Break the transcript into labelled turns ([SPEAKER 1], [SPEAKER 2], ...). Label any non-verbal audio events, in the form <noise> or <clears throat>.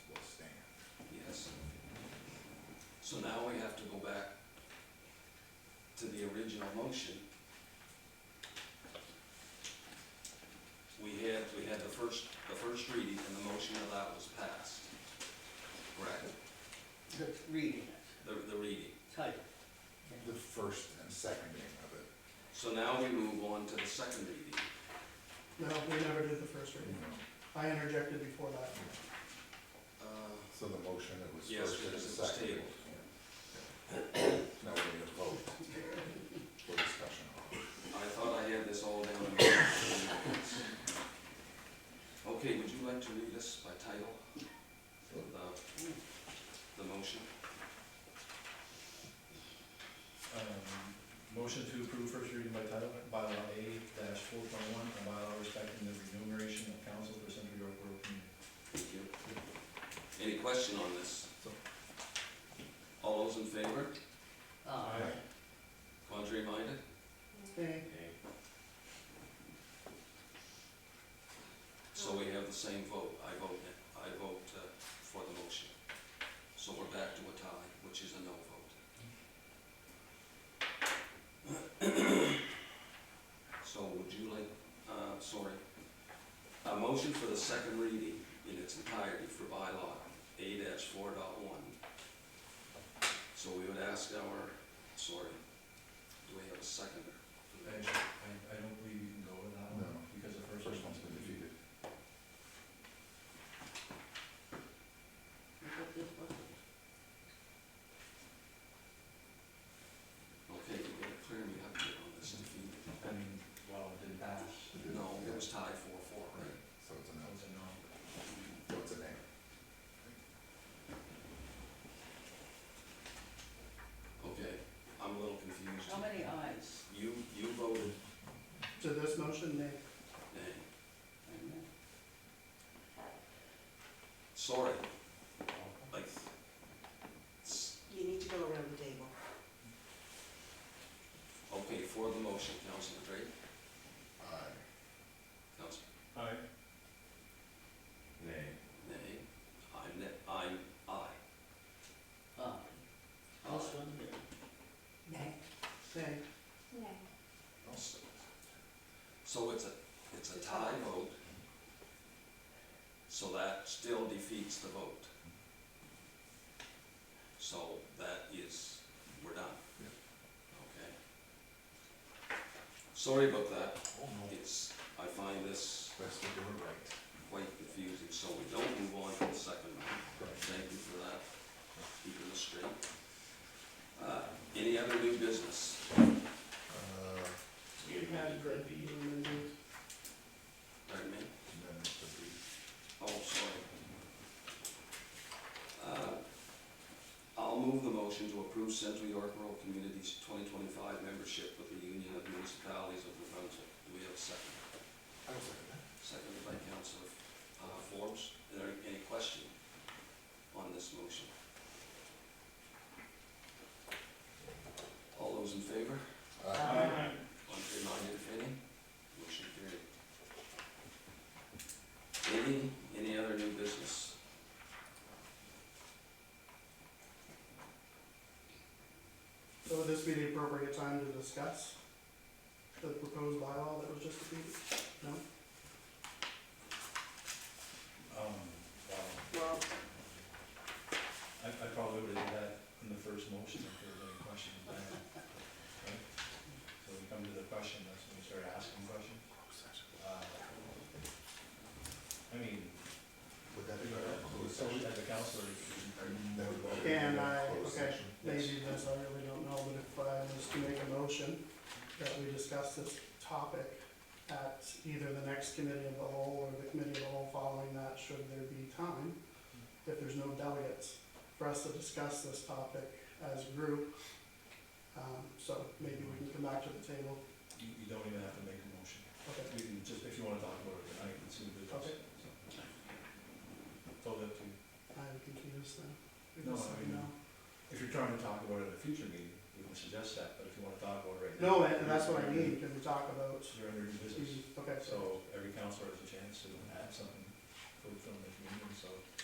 [SPEAKER 1] have to go back to the original motion. We had, we had the first, the first reading and the motion of that was passed. Correct.
[SPEAKER 2] the reading it,
[SPEAKER 1] The, the reading.
[SPEAKER 2] title.
[SPEAKER 3] The first and second reading of it.
[SPEAKER 1] So now we move on to the second reading.
[SPEAKER 4] No, we never did the first reading. I interjected before that.
[SPEAKER 1] Uh,
[SPEAKER 3] So the motion, it was
[SPEAKER 1] Yes,
[SPEAKER 3] first and
[SPEAKER 1] because it was
[SPEAKER 3] second.
[SPEAKER 1] tabled.
[SPEAKER 3] Yeah. Now we need a vote for discussion.
[SPEAKER 1] I thought I had this all down. in my notes. Okay, would you like to read this by title? The, the motion?
[SPEAKER 5] Um, Motion to approve first reading by title, bylaw A dash four point one, a bylaw respecting the remuneration of council for Central York Borough Community.
[SPEAKER 1] Thank you. Any question on this? All those in favor?
[SPEAKER 2] Uh,
[SPEAKER 1] Contrary minded?
[SPEAKER 4] Okay,
[SPEAKER 1] So we have the same vote. I vote, I vote uh, for the motion. So we're back to a tie, which is a no vote. <clears throat> So would you like, uh, sorry, a motion for the second reading in its entirety for bylaw A four dot one. So we would ask our, sorry, do we have a seconder? for that?
[SPEAKER 5] I, I- I don't believe you can go with that one,
[SPEAKER 3] No.
[SPEAKER 5] because the
[SPEAKER 3] The
[SPEAKER 5] first.
[SPEAKER 3] first one's been defeated.
[SPEAKER 2] what this was.
[SPEAKER 1] Okay, you gotta clear me up here on this defeat.
[SPEAKER 5] I mean, well, it didn't pass,
[SPEAKER 3] It did.
[SPEAKER 1] No, it
[SPEAKER 3] Yeah.
[SPEAKER 1] was tied four four, right?
[SPEAKER 3] So it's a
[SPEAKER 5] that
[SPEAKER 3] no,
[SPEAKER 5] was a no.
[SPEAKER 3] so it's a nay.
[SPEAKER 1] Okay, I'm a little confused.
[SPEAKER 2] How many ayes?
[SPEAKER 1] You, you voted
[SPEAKER 4] to this motion, nay.
[SPEAKER 1] nay.
[SPEAKER 2] And, uh,
[SPEAKER 1] Sorry. Like, s-
[SPEAKER 6] You need to go around the table.
[SPEAKER 1] okay, for the motion, Councilman Drake,
[SPEAKER 3] Aye.
[SPEAKER 1] Councilman,
[SPEAKER 5] Aye.
[SPEAKER 3] Nay.
[SPEAKER 1] nay, I'm, ne- I'm, aye.
[SPEAKER 2] uh,
[SPEAKER 1] Aye.
[SPEAKER 2] this one here.
[SPEAKER 6] Nay.
[SPEAKER 4] Nay.
[SPEAKER 1] So- So it's a, it's a tie vote. So that still defeats the vote. So that is, we're done.
[SPEAKER 3] Yeah.
[SPEAKER 1] Okay. Sorry about that.
[SPEAKER 3] Oh, no.
[SPEAKER 1] It's, I find this
[SPEAKER 3] Best to do it right.
[SPEAKER 1] quite confusing, so we don't move on to the second round.
[SPEAKER 3] Correct.
[SPEAKER 1] Thank you for that, keeping us straight. Uh, Any other new business?
[SPEAKER 3] Uh,
[SPEAKER 6] You had a great
[SPEAKER 1] Pardon me?
[SPEAKER 3] and then it's a brief.
[SPEAKER 1] Oh, sorry. Uh, I'll move the motion to approve Central York Rural Communities twenty twenty-five membership with the Union of Municipalities of New Brunswick. Do we have a second?
[SPEAKER 3] I will second that.
[SPEAKER 1] Seconded by Councilor uh, Forbes. Is there any question on this motion? All those in favor?
[SPEAKER 3] Aye.
[SPEAKER 1] Contrary minded, if any? Motion carried. Any, any other new business?
[SPEAKER 4] So would this be the appropriate time to discuss the proposed bylaw that was just defeated? No?
[SPEAKER 5] Um, wow,
[SPEAKER 6] Well,
[SPEAKER 5] I, I probably would have did that in the first motion, if there was any questions there. Right? So we come to the question, that's when we start asking questions. Uh, I mean,
[SPEAKER 3] Would that be our closed
[SPEAKER 5] so
[SPEAKER 3] session?
[SPEAKER 5] as a counselor,
[SPEAKER 3] That would be our
[SPEAKER 4] Can I-
[SPEAKER 3] closed
[SPEAKER 4] okay.
[SPEAKER 3] session.
[SPEAKER 4] Maybe this, I really don't know, but if I was to make a motion that we discuss this topic at either the next committee of the whole or the committee of the whole following that, should there be time, if there's no delegates, for us to discuss this topic as a group. Um, so maybe we can come back to the table.
[SPEAKER 5] you, you don't even have to make a motion.
[SPEAKER 4] Okay,
[SPEAKER 5] You can just, if you wanna talk about it tonight, it's in the business.
[SPEAKER 4] Okay.
[SPEAKER 5] so. It's all up to you.
[SPEAKER 4] I'm confused then. We
[SPEAKER 5] No, I
[SPEAKER 4] just-
[SPEAKER 5] mean- If you're trying to talk about it at a future meeting, we can suggest that, but if you wanna talk about it right now.
[SPEAKER 4] No, and that's what I mean, can we talk about,
[SPEAKER 5] You're under new business,
[SPEAKER 4] okay, so,
[SPEAKER 5] so every counselor has a chance to add something